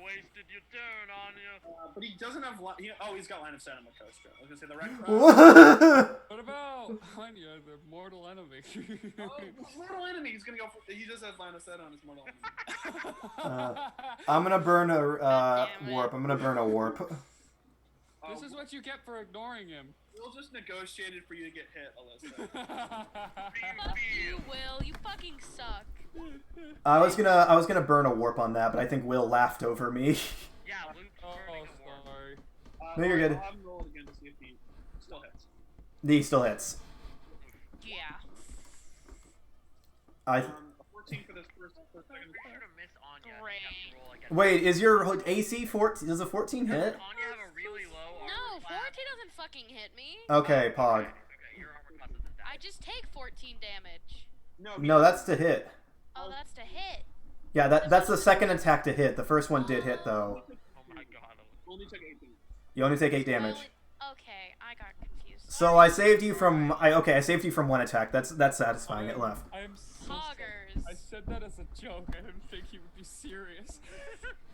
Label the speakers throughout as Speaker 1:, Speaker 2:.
Speaker 1: place did you turn on you?
Speaker 2: Uh, but he doesn't have. Li- he, oh, he's got line of sight on Makostra. I was gonna say the red.
Speaker 3: What about Anya, the mortal enemy?
Speaker 2: Oh, mortal enemy. He's gonna go. For, he does have line of sight on his mortal enemy.
Speaker 4: Oh. I'm gonna burn a uh,
Speaker 5: Damn it.
Speaker 4: warp. I'm gonna burn a warp.
Speaker 2: Oh,
Speaker 3: this is what you get for ignoring him. Oh,
Speaker 2: we'll just negotiate it for you to get hit, Alyssa. Uh,
Speaker 5: Fuck you, Will. You fucking suck.
Speaker 4: I was gonna I was gonna burn a warp on that, but I think Will laughed over me.
Speaker 1: Yeah, Luke's
Speaker 3: oh,
Speaker 1: turning a warp.
Speaker 3: sorry.
Speaker 2: Uh,
Speaker 4: No, you're
Speaker 2: I'll-
Speaker 4: good.
Speaker 2: I'll have him roll it again to see if he still hits.
Speaker 4: he still hits.
Speaker 5: Yeah.
Speaker 4: I
Speaker 2: Um, a 14 for this first, for the second
Speaker 1: Pretty sure
Speaker 2: attack.
Speaker 1: to miss Anya. and have to
Speaker 5: Great.
Speaker 1: roll again.
Speaker 4: wait. Is your AC 14? Does a 14 hit?
Speaker 1: Does Anya have a really low armor
Speaker 5: No, 14
Speaker 1: class?
Speaker 5: doesn't fucking hit me.
Speaker 4: Okay, Pog.
Speaker 1: Okay, your armor class isn't that.
Speaker 5: I just take 14 damage.
Speaker 2: No,
Speaker 4: No, that's to hit.
Speaker 5: Oh, that's to hit.
Speaker 4: Yeah, that that's the second attack to hit. The first one did hit though.
Speaker 1: Oh my god. Alyssa.
Speaker 2: Only took 18.
Speaker 4: You only take eight damage.
Speaker 5: Well, it- okay, I got confused.
Speaker 4: So I saved you from I okay. I saved you from one attack. That's that's satisfying. It left.
Speaker 3: I am so sorry.
Speaker 5: Poggers.
Speaker 3: I said that as a joke. I didn't think he would be serious.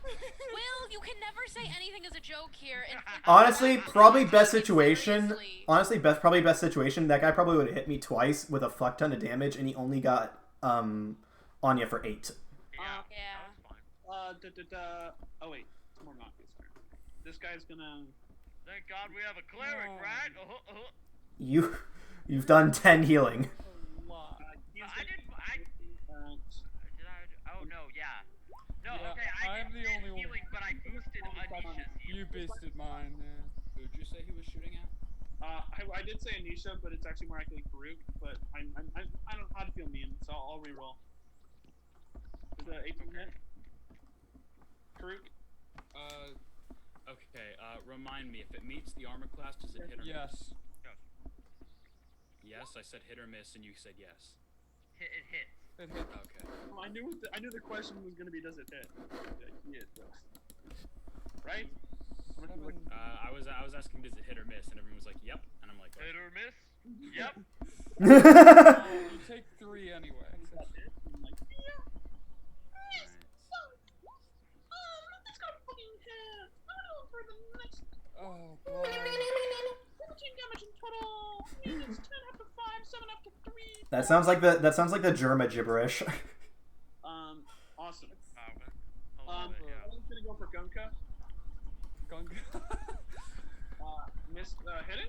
Speaker 5: Will, you can never say anything as a joke here. And think
Speaker 4: Honestly,
Speaker 5: about it
Speaker 4: probably best
Speaker 5: seriously.
Speaker 4: situation. Honestly, best probably best situation. That guy probably would have hit me twice with a fuck ton of damage, and he only got um Anya for eight.
Speaker 1: Yeah.
Speaker 5: Yeah.
Speaker 1: That was fine.
Speaker 2: Uh, da, da, da. Oh, wait. It's more Mafia's turn. This guy's gonna.
Speaker 1: Thank god we have a cleric,
Speaker 3: Oh.
Speaker 1: right? Uh-huh, uh-huh.
Speaker 4: You you've done ten healing.
Speaker 3: A lot.
Speaker 2: Uh, he's
Speaker 1: I
Speaker 2: gonna
Speaker 1: didn't- I-
Speaker 2: Uh,
Speaker 1: Did I? Oh no, yeah. No,
Speaker 3: Yeah,
Speaker 1: okay, I
Speaker 3: I'm
Speaker 1: did
Speaker 3: the only one.
Speaker 1: healing, but I boosted Anisha's
Speaker 3: You
Speaker 1: healing.
Speaker 3: basted mine. Yeah.
Speaker 6: Who'd you say he was shooting at?
Speaker 2: Uh, I, I did say Anisha, but it's actually more likely Karuk. But I'm, I'm, I'm, I don't know how to feel mean, so I'll, I'll reroll. Is that 18 hit? Karuk?
Speaker 6: Uh, okay. Uh, remind me if it meets the armor class, does it hit or
Speaker 3: Yes.
Speaker 6: miss? Yes, I said hit or miss, and you said yes.
Speaker 1: Hit, it hits.
Speaker 3: It hit.
Speaker 6: Okay.
Speaker 2: I knew what the, I knew the question was gonna be does it hit? Yeah, he hit though. Right? I'm gonna look-
Speaker 6: Uh, I was I was asking does it hit or miss, and everyone was like yep, and I'm like
Speaker 1: Hit
Speaker 6: "What?"
Speaker 1: or miss? Yep.
Speaker 3: Oh,
Speaker 4: All
Speaker 3: you take three anyway.
Speaker 2: Is that it? I'm like, um,
Speaker 3: Oh god.
Speaker 4: That sounds like the that sounds like the Germa gibberish.
Speaker 2: um, awesome.
Speaker 1: Oh, I love
Speaker 2: Um,
Speaker 1: it, yeah.
Speaker 2: I'm gonna go for Gunka.
Speaker 3: Gunga.
Speaker 2: Uh, missed, uh, hidden?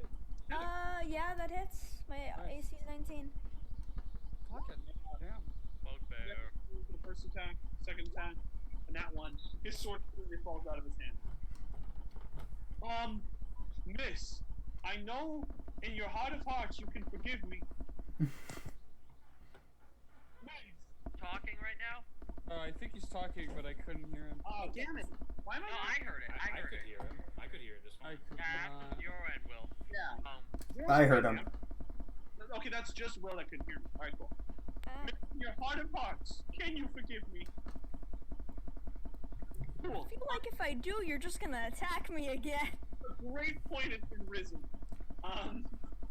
Speaker 7: Uh, yeah, that hits. My AC is 19.
Speaker 3: Fucking damn.
Speaker 1: Bugbear.
Speaker 2: The first attack, second attack, and that one. His sword completely falls out of his hand. Um, miss, I know in your heart of hearts you can forgive me. Nice.
Speaker 1: Talking right now?
Speaker 3: Oh, I think he's talking, but I couldn't hear him.
Speaker 2: Oh, damn it. Why am
Speaker 1: No,
Speaker 2: I not-
Speaker 1: I heard it.
Speaker 6: I,
Speaker 1: I
Speaker 6: I
Speaker 1: heard
Speaker 6: could
Speaker 1: it.
Speaker 6: hear him. I could hear it this
Speaker 3: I
Speaker 6: one.
Speaker 3: could
Speaker 1: Yeah,
Speaker 3: not.
Speaker 1: that's your end, Will.
Speaker 2: Yeah.
Speaker 1: Um,
Speaker 4: I heard him.
Speaker 2: Okay, that's just Will that couldn't hear me. Alright, cool.
Speaker 7: Uh,
Speaker 2: Miss, in your heart of hearts, can you forgive me?
Speaker 7: I
Speaker 2: Cool.
Speaker 7: feel like if I do, you're just gonna attack me again.
Speaker 2: great point has been risen. Um,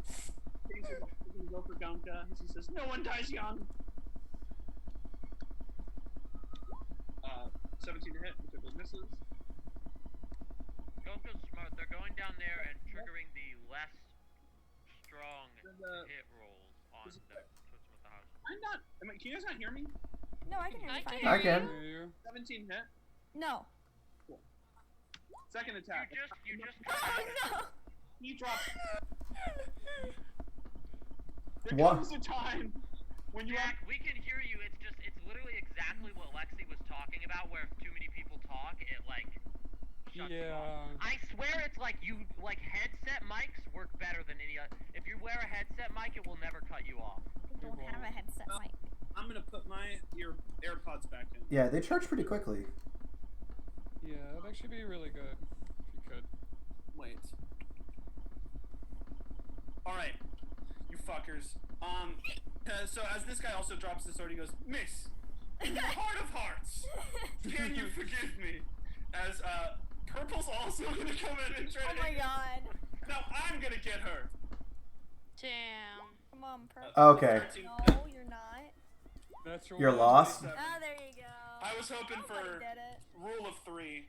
Speaker 2: he's going to go for Gonka. He says, No one dies young. Uh, 17 to hit, which I believe misses.
Speaker 1: don't go smart. They're going down there and triggering the less strong
Speaker 2: Does, uh,
Speaker 1: hit rolls on the
Speaker 2: is-
Speaker 1: Twits with the House.
Speaker 2: I'm not. I mean, can you guys not hear me?
Speaker 7: No, I can hear
Speaker 5: I
Speaker 7: you
Speaker 5: can
Speaker 7: fine.
Speaker 5: hear
Speaker 4: I can.
Speaker 5: you.
Speaker 3: Hear you.
Speaker 2: 17 hit.
Speaker 7: No.
Speaker 2: Second
Speaker 1: You
Speaker 2: attack.
Speaker 1: just, you just.
Speaker 7: Oh no!
Speaker 2: He drops. There
Speaker 4: What?
Speaker 2: comes a time when you have
Speaker 1: Jack, we can hear you. It's just, it's literally exactly what Lexi was talking about, where if too many people talk, it like shuts you off.
Speaker 3: Yeah.
Speaker 1: I swear it's like you like headset mics work better than any other. If you wear a headset mic, it will never cut you off.
Speaker 7: I don't have a headset mic.
Speaker 2: I'm gonna put my ear AirPods back in.
Speaker 4: Yeah, they charge pretty quickly.
Speaker 3: Yeah, that'd actually be really good if you could.
Speaker 2: Wait. All right, you fuckers. Um, uh, so as this guy also drops the sword, he goes, "Miss, in your heart of hearts, can you forgive me?" As uh, purple's also gonna come in and try
Speaker 7: oh
Speaker 2: to.
Speaker 7: my god.
Speaker 2: No, I'm gonna get her.
Speaker 5: Damn.
Speaker 7: Come on,
Speaker 2: Uh,
Speaker 7: purple.
Speaker 4: Okay.
Speaker 2: Thirteen.
Speaker 7: No, you're not.
Speaker 3: Natural
Speaker 4: You're
Speaker 3: one.
Speaker 4: lost.
Speaker 7: Ah, there you go.
Speaker 2: Uh, I was hoping
Speaker 7: Nobody
Speaker 2: for
Speaker 7: did it.
Speaker 2: rule of three.